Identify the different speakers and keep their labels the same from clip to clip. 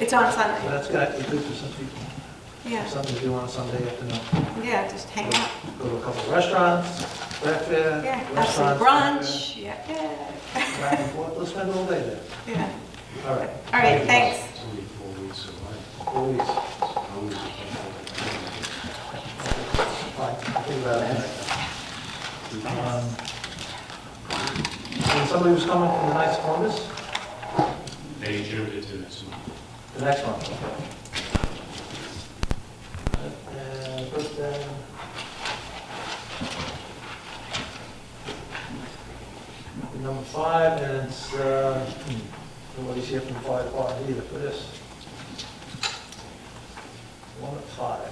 Speaker 1: It's on
Speaker 2: Well,
Speaker 1: Sunday.
Speaker 2: that's got to be good for some people,
Speaker 1: Yeah,
Speaker 2: something to do on a Sunday afternoon.
Speaker 1: yeah, just hang out.
Speaker 2: Go to a couple of restaurants, breakfast,
Speaker 1: Yeah, have some
Speaker 2: restaurants.
Speaker 1: brunch. Yeah, yeah,
Speaker 2: breakfast, back and forth. Let's spend all day there.
Speaker 1: yeah.
Speaker 2: All right.
Speaker 1: All right, thanks.
Speaker 3: It's only four weeks away.
Speaker 2: Always,
Speaker 3: Always a couple
Speaker 2: fine, think about it. Um, And somebody was coming from the Knights of Columbus,
Speaker 3: of- They adjourned it to next month.
Speaker 2: the next one. Uh, but, uh, uh, Number five, and it's, uh, hmm, nobody's here from five department either for this. One at five.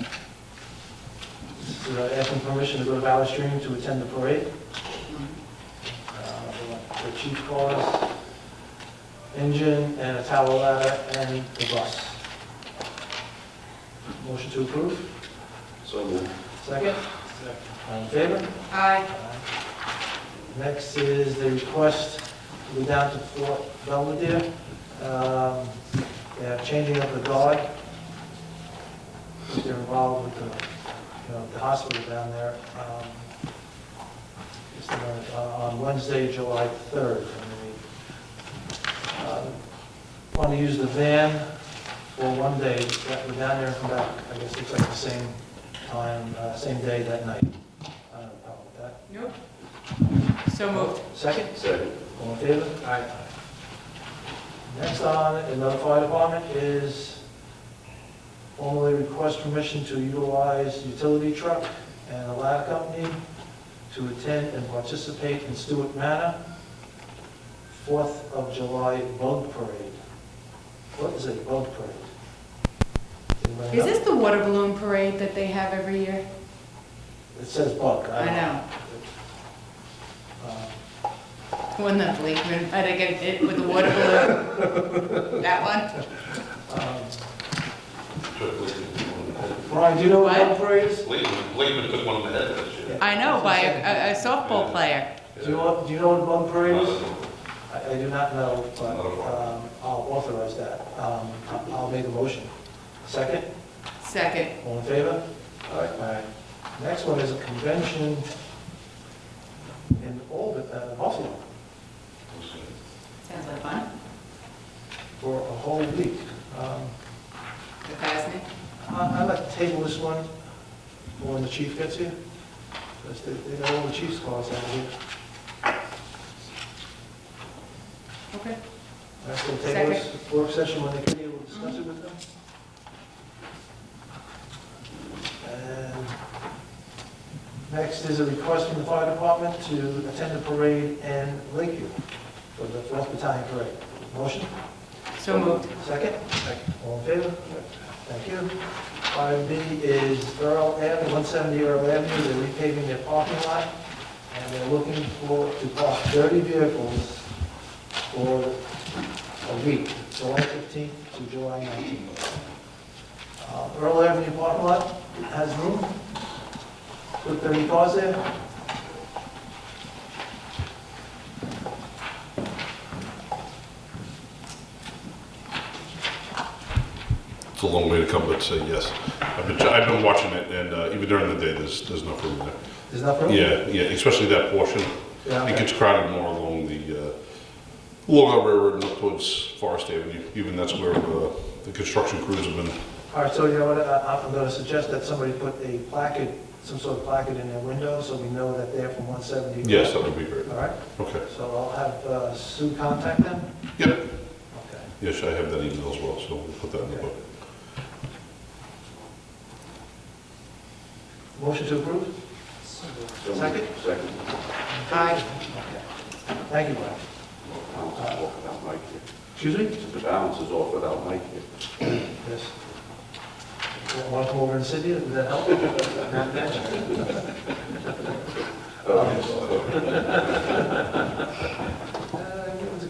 Speaker 2: This is, uh, Asking permission to go to Valley Stream to attend the parade. Uh, The chief cars, engine, and a tower ladder, and the bus. Motion to approve?
Speaker 3: So moved.
Speaker 2: Second? All in favor?
Speaker 1: Aye.
Speaker 2: Next is the request to go down to Fort Belvedere. Um, They have changing of the guard. They're involved with the, you know, the hospital down there. Um, it's the- uh, On Wednesday, July 3rd. and they, um, Want to use the van for one day, go down there and come back. I guess it's like the same time, uh, same day that night. Uh, I don't know about that.
Speaker 4: Nope. So moved.
Speaker 2: Second?
Speaker 3: Second.
Speaker 2: All in favor? Aye. Next on, another fire department is formally request permission to utilize utility truck and a ladder company to attend and participate in Stewart Manor, Fourth of July Bug Parade. What is a bug parade? Anybody
Speaker 4: Is
Speaker 2: know?
Speaker 4: this the water balloon parade that they have every year?
Speaker 2: It says bug.
Speaker 4: I know.
Speaker 2: Uh,
Speaker 4: The One that Blakeman, I think it did with the water balloon. That one?
Speaker 2: um,
Speaker 5: Blakeman
Speaker 2: Brian, do you know what
Speaker 4: What?
Speaker 2: bug parade is?
Speaker 5: Blakeman took one in the head that year.
Speaker 4: I know, by a a softball player.
Speaker 2: Do you know, do you know what a bug parade is?
Speaker 5: Well,
Speaker 2: I I do not know, but
Speaker 5: Not a problem.
Speaker 2: um, I'll authorize that. Um, I- I'll make a motion. Second,
Speaker 4: Second.
Speaker 2: all in favor? Aye. Next one is a convention in Albany, uh, Buffalo,
Speaker 4: Sounds like fun.
Speaker 2: for a whole week. Um,
Speaker 4: The guy's name?
Speaker 2: I- I'd like to table this one when the chief gets here, because they they got all the chief's calls out here.
Speaker 4: Okay.
Speaker 2: That's going to table this work session when they get here, we'll discuss it with them. And next is a request from the fire department to attend the parade in Lakeview for the 4th Battalion Parade. Motion?
Speaker 4: So moved.
Speaker 2: Second? Second. All in favor? Thank you. Item B is Earl Avenue, 170 Earl Avenue, they're repaving their parking lot, and they're looking for, to park 30 vehicles for a week, July 15th to July 19th. Uh, Earl Avenue parking lot has room, put 30 cars there.
Speaker 5: It's a long way to come, but say yes. I've been, I've been watching it, and uh, even during the day, there's, there's enough room there.
Speaker 2: There's enough room?
Speaker 5: Yeah, yeah, especially that portion.
Speaker 2: Yeah,
Speaker 5: It
Speaker 2: okay.
Speaker 5: gets crowded more along the, uh, along our railroad and up towards Forest Avenue. Even that's where uh, the construction crews have been.
Speaker 2: All right, so you know what, I- I'm going to suggest that somebody put a placard, some sort of placard in their window, so we know that they're from 170.
Speaker 5: Yes, that would be great.
Speaker 2: All right,
Speaker 5: Okay.
Speaker 2: so I'll have uh, Sue contact them?
Speaker 5: Yep.
Speaker 2: Okay.
Speaker 5: Yes, I have that email as well, so we'll put that in the book.
Speaker 2: Motion to approve? Second?
Speaker 6: Second.
Speaker 2: Aye. Thank you, Brian.
Speaker 6: Balance is off without Mike here.
Speaker 2: Excuse me?
Speaker 6: The balance is off without Mike here.
Speaker 2: Yes. Want to come over and sit here, would that help? Not that. Uh, give us a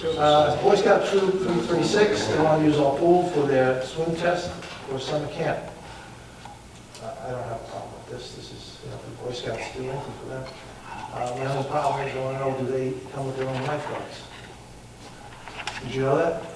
Speaker 2: committee. Uh, Boy Scout Troop 336, they want to use our pool for their swim test or summer camp. I I don't have a problem with this, this is, you know, the Boy Scouts do anything for them. Uh, My only problem is, I want to know, do they come with their own lifeguards? Did you know that?